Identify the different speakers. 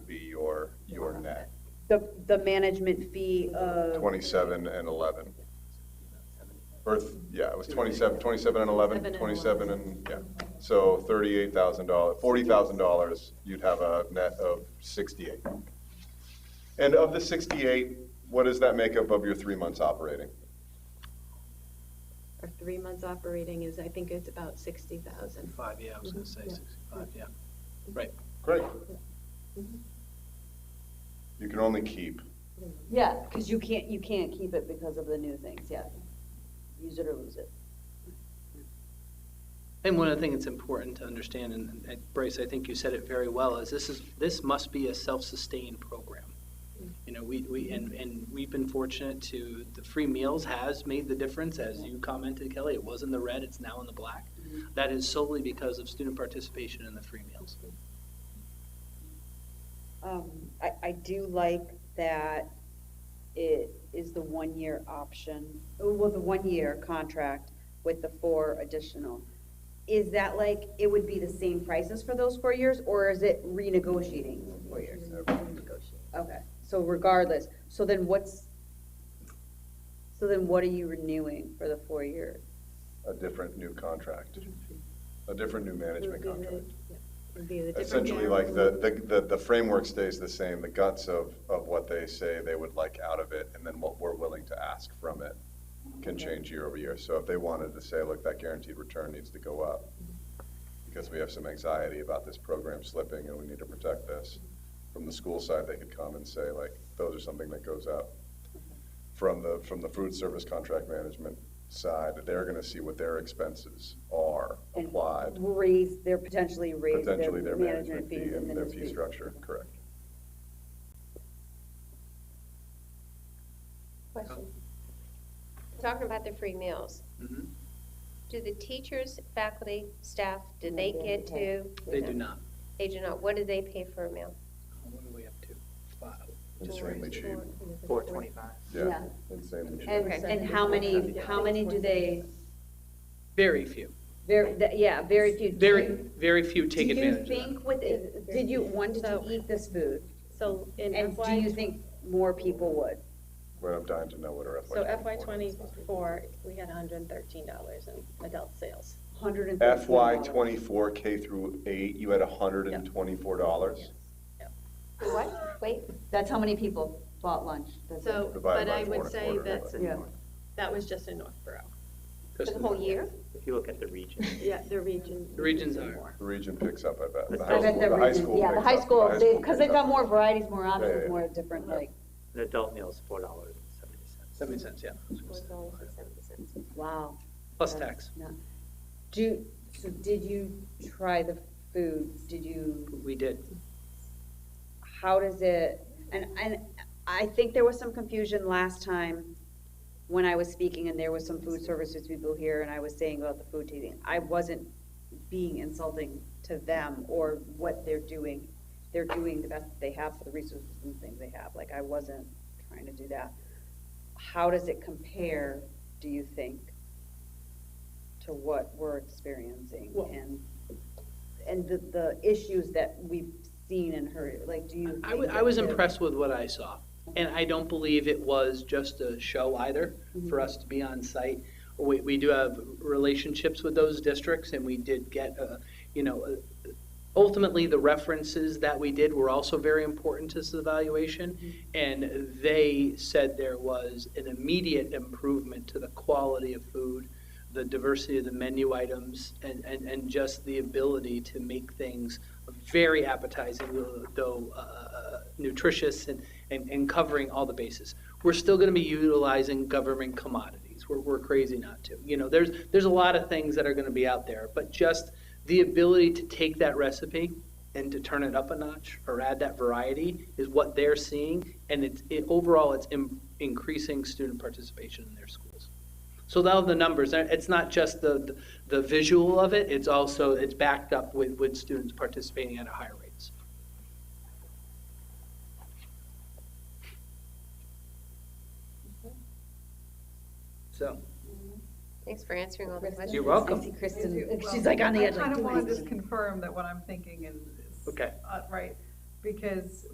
Speaker 1: the, the management fee of.
Speaker 2: Twenty-seven and eleven. Or, th- yeah, it was 27, 27 and 11, 27 and, yeah. So $38,000, $40,000, you'd have a net of 68. And of the 68, what does that make up of your three months operating?
Speaker 3: Our three months operating is, I think it's about sixty thousand.
Speaker 4: Five, yeah, I was gonna say
Speaker 3: Yeah.
Speaker 4: sixty-five, yeah. Right,
Speaker 2: Great.
Speaker 3: Mhm.
Speaker 2: You can only keep,
Speaker 1: Yeah, because you can't, you can't keep it because of the new things, yeah. Use it or lose it.
Speaker 4: and one of the things that's important to understand, and uh, Bryce, I think you said it very well, is this is, this must be a self-sustained program. You know, we, we, and, and we've been fortunate to, the free meals has made the difference, as you commented, Kelly, it was in the red, it's now in the black. That is solely because of student participation in the free meals.
Speaker 1: Um, I, I do like that it is the one-year option, oh, well, the one-year contract with the four additional. Is that like, it would be the same prices for those four years, or is it renegotiating four years? Okay, so regardless, so then what's, so then what are you renewing for the four years?
Speaker 2: a different new contract, a different new management contract.
Speaker 3: Would be the different
Speaker 2: Essentially,
Speaker 3: variable.
Speaker 2: like, the, the- the, the framework stays the same, the guts of, of what they say they would like out of it, and then what we're willing to ask from it can change year over year. So if they wanted to say, look, that guaranteed return needs to go up, because we have some anxiety about this program slipping, and we need to protect this, from the school side, they could come and say, like, those are something that goes up. From the, from the food service contract management side, they're gonna see what their expenses are
Speaker 1: And
Speaker 2: applied
Speaker 1: Raise, they're potentially raise
Speaker 2: potentially
Speaker 1: their
Speaker 2: their
Speaker 1: management fees and
Speaker 2: and
Speaker 1: then
Speaker 2: their
Speaker 1: it's
Speaker 2: fee
Speaker 1: fee.
Speaker 2: structure, correct.
Speaker 5: Talking about the free meals,
Speaker 4: Mhm.
Speaker 5: do the teachers, faculty, staff, do they get to?
Speaker 4: They do not.
Speaker 5: They do not, what do they pay for a meal?
Speaker 4: What are we up to? Five.
Speaker 2: Extremely cheap,
Speaker 6: Four twenty-five.
Speaker 2: yeah, insanely cheap.
Speaker 1: And, and how many, how many do they,
Speaker 4: Very few,
Speaker 1: very, th- yeah, very few. Do
Speaker 4: very,
Speaker 1: you-
Speaker 4: very few take advantage of
Speaker 1: Do
Speaker 4: that.
Speaker 1: you think with, did you, one, did you
Speaker 3: So-
Speaker 1: eat this food?
Speaker 3: So in
Speaker 1: And do you
Speaker 3: FY,
Speaker 1: think more people would?
Speaker 2: Well, I'm dying to know what our FY.
Speaker 3: so FY
Speaker 2: twenty
Speaker 3: twenty-four, we had hundred and thirteen dollars in adult sales.
Speaker 1: Hundred and
Speaker 2: four.
Speaker 1: thirteen
Speaker 2: FY
Speaker 1: dollars.
Speaker 2: twenty-four, K through eight, you had hundred and twenty-four dollars?
Speaker 5: What? Wait,
Speaker 1: That's how many people bought lunch. That's it.
Speaker 3: So,
Speaker 2: Divided
Speaker 3: but
Speaker 2: by
Speaker 3: I
Speaker 2: four and
Speaker 3: would
Speaker 2: a
Speaker 3: say
Speaker 2: quarter,
Speaker 3: that's,
Speaker 1: Yeah.
Speaker 3: that was just in Northborough.
Speaker 5: for the whole year?
Speaker 6: If you look at the region,
Speaker 3: Yeah, the region.
Speaker 4: The regions are.
Speaker 3: more.
Speaker 2: The region picks up, I bet. The high school-
Speaker 1: I bet the
Speaker 2: the high
Speaker 1: region,
Speaker 2: school
Speaker 1: yeah, the
Speaker 2: picks
Speaker 1: high
Speaker 2: up,
Speaker 1: school,
Speaker 2: high
Speaker 1: they,
Speaker 2: school
Speaker 1: because
Speaker 2: picks
Speaker 1: they've got
Speaker 2: up.
Speaker 1: more varieties, more options,
Speaker 2: yeah.
Speaker 1: more different, like,
Speaker 6: an adult meal is four dollars and seventy cents.
Speaker 4: That makes sense, yeah.
Speaker 1: wow.
Speaker 4: Plus
Speaker 1: That's
Speaker 4: tax.
Speaker 1: not- Do, so did you try the food? Did you?
Speaker 4: We did.
Speaker 1: how does it, and, and I think there was some confusion last time when I was speaking and there was some food services people here and I was saying about the food tasting. I wasn't being insulting to them or what they're doing. They're doing the best that they have for the resources and things they have. Like, I wasn't trying to do that. How does it compare, do you think, to what we're experiencing
Speaker 4: Well-
Speaker 1: and, and the, the issues that we've seen and heard? Like, do you?
Speaker 4: I
Speaker 1: think
Speaker 4: wa- I
Speaker 1: that
Speaker 4: was
Speaker 1: they're-
Speaker 4: impressed with what I saw. And I don't believe it was just a show either, for us to be on site. We, we do have relationships with those districts, and we did get, uh, you know, uh, ultimately, the references that we did were also very important to this evaluation. And they said there was an immediate improvement to the quality of food, the diversity of the menu items, and, and, and just the ability to make things very appetizing, though uh, nutritious and, and, and covering all the bases. We're still going to be utilizing government commodities. We're, we're crazy not to. You know, there's, there's a lot of things that are going to be out there, but just the ability to take that recipe and to turn it up a notch or add that variety is what they're seeing. And it's, it, overall, it's in, increasing student participation in their schools. So now the numbers, uh, it's not just the, the visual of it, it's also, it's backed up with, with students participating at a higher rates. So,
Speaker 5: Thanks for answering all the questions.
Speaker 4: you're welcome.
Speaker 1: I see Kristen,
Speaker 7: Well,
Speaker 1: she's like on the edge.
Speaker 7: I kind of
Speaker 1: like,
Speaker 7: want to
Speaker 1: "Do I-"
Speaker 7: just confirm that what I'm thinking is. is,
Speaker 4: Okay.
Speaker 7: uh, Right, because